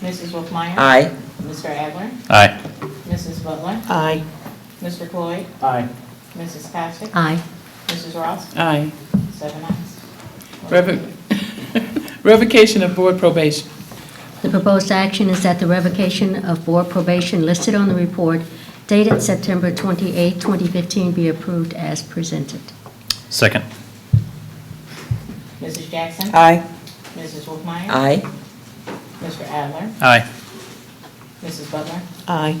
Mrs. Wolfmeyer? Aye. Mr. Adler? Aye. Mrs. Butler? Aye. Mr. Cloyd? Aye. Mrs. Passick? Aye. Mrs. Ross? Aye. Seven ayes. Revo- Revocation of board probation. The proposed action is that the revocation of board probation listed on the report dated September 28, 2015 be approved as presented. Second. Mrs. Jackson? Aye. Mrs. Wolfmeyer? Aye. Mr. Adler? Aye. Mrs. Butler? Aye.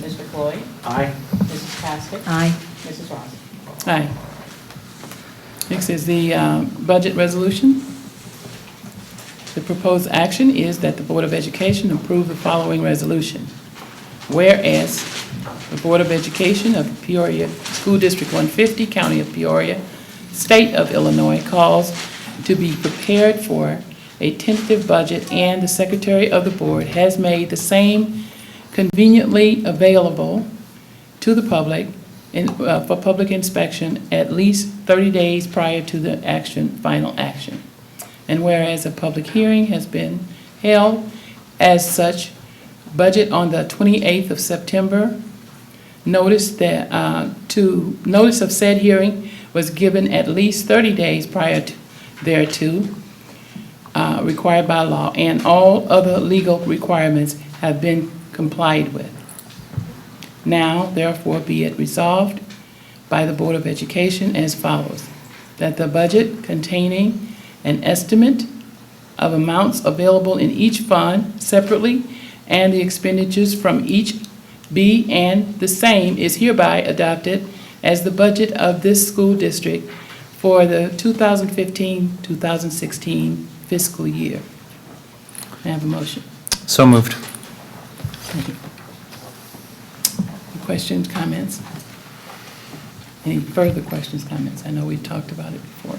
Mr. Cloyd? Aye. Mrs. Passick? Aye. Mrs. Ross? Aye. Next is the uh, budget resolution. The proposed action is that the Board of Education approve the following resolution. Whereas the Board of Education of Peoria, School District 150, County of Peoria, State of Illinois calls to be prepared for a tentative budget, and the Secretary of the Board has made the same conveniently available to the public in- uh, for public inspection at least 30 days prior to the action, final action. And whereas a public hearing has been held as such, budget on the 28th of September, notice that, uh, to, notice of said hearing was given at least 30 days prior to- thereto, uh, required by law, and all other legal requirements have been complied with. Now, therefore, be it resolved by the Board of Education as follows, that the budget containing an estimate of amounts available in each fund separately and the expenditures from each be and the same is hereby adopted as the budget of this school district for the 2015-2016 fiscal year. May I have a motion? So moved. Questions, comments? Any further questions, comments? I know we talked about it before.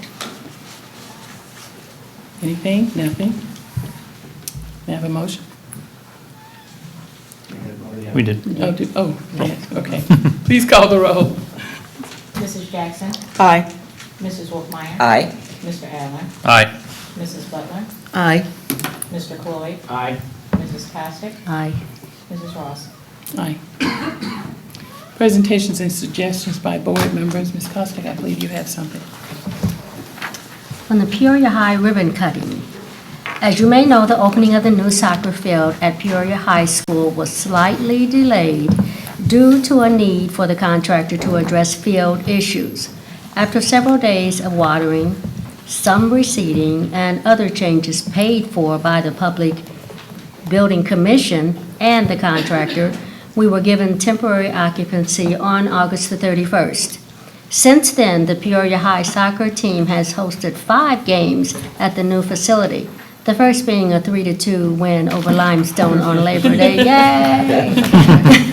Anything? Nothing? May I have a motion? We did. Oh, do- Oh, yes, okay. Please call the roll. Mrs. Jackson? Aye. Mrs. Wolfmeyer? Aye. Mr. Adler? Aye. Mrs. Butler? Aye. Mr. Cloyd? Aye. Mrs. Passick? Aye. Mrs. Ross? Aye. Presentations and suggestions by board members. Ms. Costick, I believe you have something. on the Peoria High ribbon cutting. As you may know, the opening of the new soccer field at Peoria High School was slightly delayed due to a need for the contractor to address field issues. After several days of watering, some receding, and other changes paid for by the Public Building Commission and the contractor, we were given temporary occupancy on August the 31st. Since then, the Peoria High soccer team has hosted five games at the new facility, the first being a 3-2 win over Limestone on Labor Day. Yay!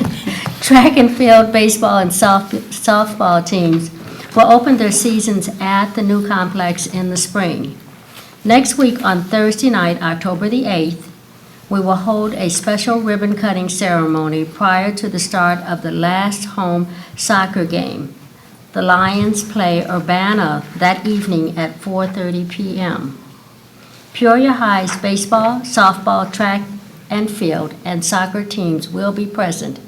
Track and field, baseball, and soft- softball teams will open their seasons at the new complex in the spring. Next week, on Thursday night, October the 8th, we will hold a special ribbon cutting ceremony prior to the start of the last home soccer game. The Lions play Urbana that evening at 4:30 p.m. Peoria High's baseball, softball, track and field, and soccer teams will be present.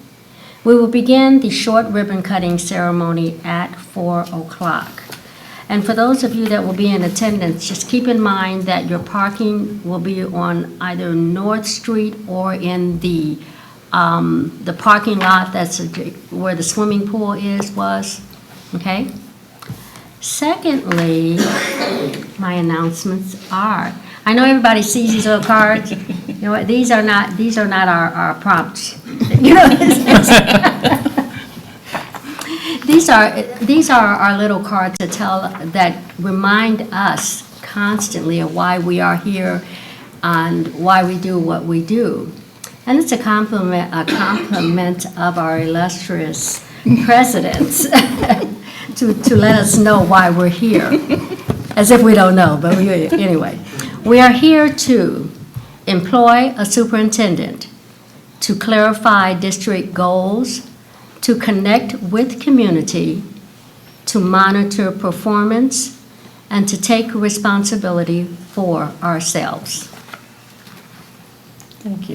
We will begin the short ribbon cutting ceremony at 4 o'clock. And for those of you that will be in attendance, just keep in mind that your parking will be on either North Street or in the, um, the parking lot that's adj- where the swimming pool is, was, okay? Secondly, my announcements are, I know everybody sees these little cards. You know what, these are not, these are not our, our prompts. You know, it's- These are, these are our little cards that tell, that remind us constantly of why we are here and why we do what we do. And it's a compliment, a compliment of our illustrious presidents to, to let us know why we're here. As if we don't know, but we, anyway. We are here to employ a superintendent, to clarify district goals, to connect with community, to monitor performance, and to take responsibility for ourselves. Thank you.